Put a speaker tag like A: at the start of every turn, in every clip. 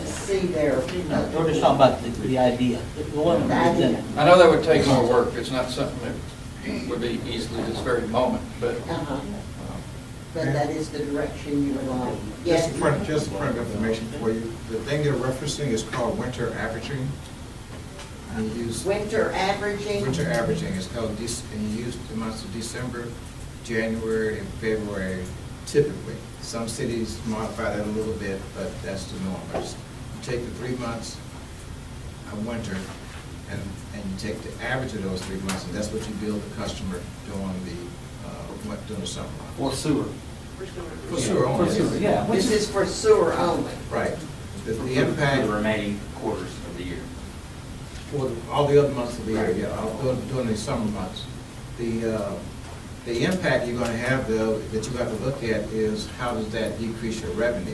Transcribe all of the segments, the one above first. A: see there.
B: No, we're just talking about the, the idea, the one
A: The
B: that was
A: idea.
B: presented.
C: I know that would take more work, it's not something that would be easily this very moment, but
A: Uh-huh. But that is the direction you would like.
D: Um, Just a
A: Yes.
D: point, just a point of information for you. The thing you're referencing is called winter averaging. And you use,
A: Winter averaging.
D: winter averaging is called, dec- and you use the months of December, January, and February typically. Some cities modify that a little bit, but that's the norm. But just Take the three months of winter, and, and you take the average of those three months, and that's what you bill the customer during the, uh, what- during the summer. months.
E: Or sewer.
D: For sure,
E: For
D: only.
E: sewer, yeah. which
A: This is for sewer only.
D: Right. The- The
E: For
D: impact.
E: The remaining quarters of the year.
D: For the- all the other months of the year, yeah, all- during- during the summer months. The, uh, the impact you're gonna have though, that you have to look at is how does that decrease your revenue?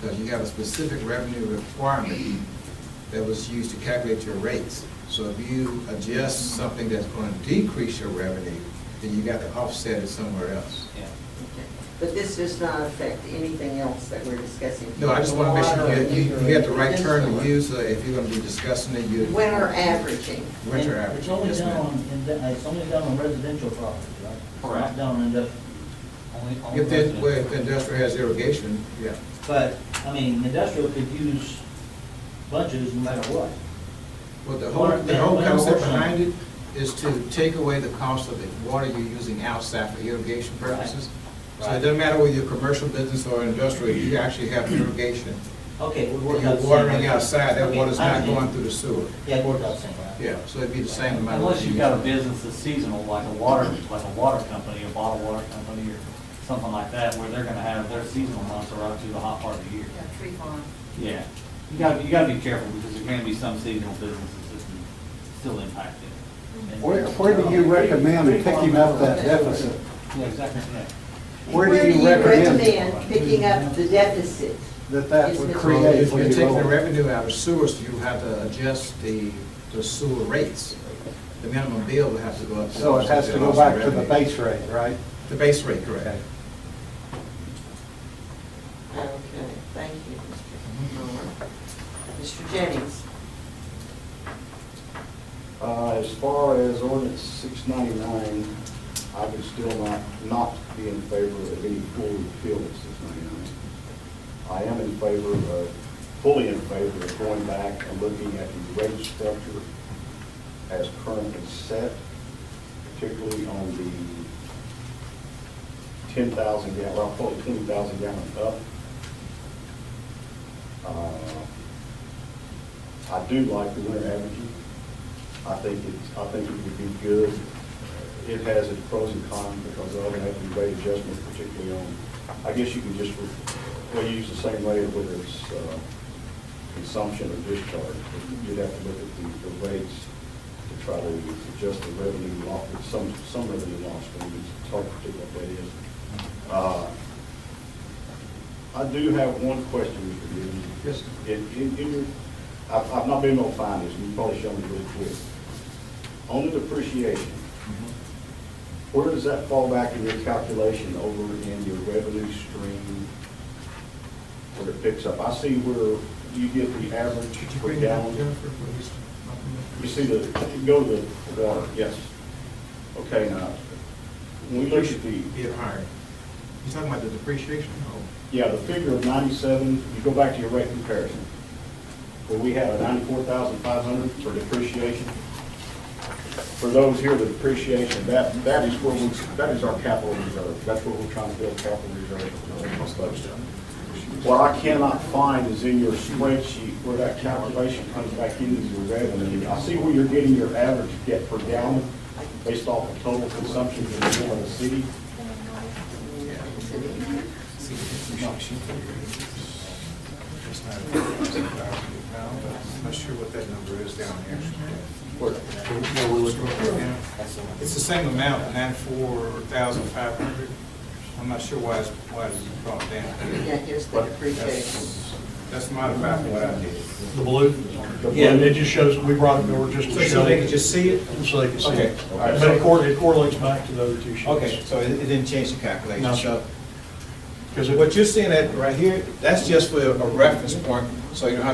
D: Because you have a specific revenue requirement that was used to calculate your rates. So if you adjust something that's gonna decrease your revenue, then you got to offset it somewhere else.
E: Yeah.
A: Okay. But this does not affect anything else that we're discussing.
D: No, I just wanna make sure you- you, you have the right term to
A: Water.
D: use, uh, if you're gonna be discussing it, you.
A: Winter averaging.
D: Winter
B: And
D: average.
B: It's only
D: yes,
B: done
D: ma'am.
B: on, in- it's only done on residential property, right? It's not
E: Correct.
B: done on industrial.
E: Only- only
D: If the,
E: residential.
D: well, if the industrial has irrigation, yeah.
B: But, I mean, industrial could use bunches no matter what.
D: Well, the whole, the whole concept behind it is to take away the cost of the water you're using outside for irrigation purposes. So it doesn't matter whether you're a commercial business or industrial, you actually have irrigation.
B: Okay, we're
D: When
B: working
D: You're
B: out. the same
D: watering
B: way.
D: outside, that
B: Okay,
D: water's
B: I
D: not
B: understand.
D: going through the sewer.
B: Yeah, it worked out the same way.
D: Yeah, so it'd be the same amount. of
F: Unless
D: water
F: you've got a
D: used.
F: business that's seasonal, like a water, like a water company, a bottled water company, or something like that, where they're gonna have their seasonal months are up to the hot part of the year.
G: tree farm.
F: Yeah, you gotta, you gotta be careful, because there can be some seasonal businesses that can still impact it. And-
H: Where, where do you recommend picking up that deficit?
F: Yeah, exactly, yeah.
H: Where do you recommend
A: recommend picking up the deficit?
H: that that would
D: Well,
H: create
D: If
H: for
D: you're
H: your
D: taking the
H: local?
D: revenue out of sewers, you have to adjust the, the sewer rates. The minimum bill would have to go up.
H: So it has to go back to the base rate, right?
D: The base rate, correct.
A: Okay, thank you, Mr. Moore. Mr. Jennings?
I: Uh, As far as ordinance 699, I would still not, not be in favor of any full repeal of 699. I am in favor of, fully in favor of going back and looking at the rate structure as currently set, particularly on the 10,000 gallon, well, probably 20,000 gallon up. Uh, I do like the winter averaging. I think it's, I think it would be good. Uh, It has its pros and cons because of it having rate adjustments, particularly on, I guess you can just, well, you use the same rate whether it's uh, consumption or discharge. You'd have to look at the, the rates to try to adjust the revenue loss, some, some revenue loss, but it's hard to predict what that is. Uh, I do have one question, Mr. Gibbons.
D: Yes, sir.
I: In, in, in your, I've, I've not been able to find this, and you probably showed me really quick. On the depreciation, where does that fall back in your calculation over in your revenue stream? Where it picks up? I see where you get the average
D: Could you
I: per
D: bring it up,
I: gallon.
D: Jennifer, please?
I: You see the, go to the water, yes. Okay, now, when we look at the,
D: Get hired. You're talking about the depreciation?
I: yeah, the figure of ninety-seven, you go back to your rate comparison, where we have a ninety-four thousand five hundred for depreciation. For those here, the depreciation, that, that is where we, that is our capital reserve, that's where we're trying to build capital reserve. What I cannot find is in your spreadsheet where that calculation comes back into your revenue. I see where you're getting your average get per gallon based off of total consumption in the city.
D: It's not now, but I'm not sure what that number is down here. Mm-hmm. It's the same amount, ninety-four thousand five hundred. I'm not sure why it's, why it's brought
A: Yeah,
D: down.
A: here's the depreciation.
D: That's that's modified from what I did.
J: The blue?
I: Yeah.
J: And it just shows, we brought it over just to
D: So-
J: show.
D: So they can just see it?
J: So they can see
D: Okay.
J: it.
D: All right.
J: But it cor- it correlates back to the other two sheets.
D: Okay, so it it didn't change the
J: No,
D: calculation,
J: sir.
D: so.
J: Because
D: What you're seeing at right here, that's just for a reference point, so you don't have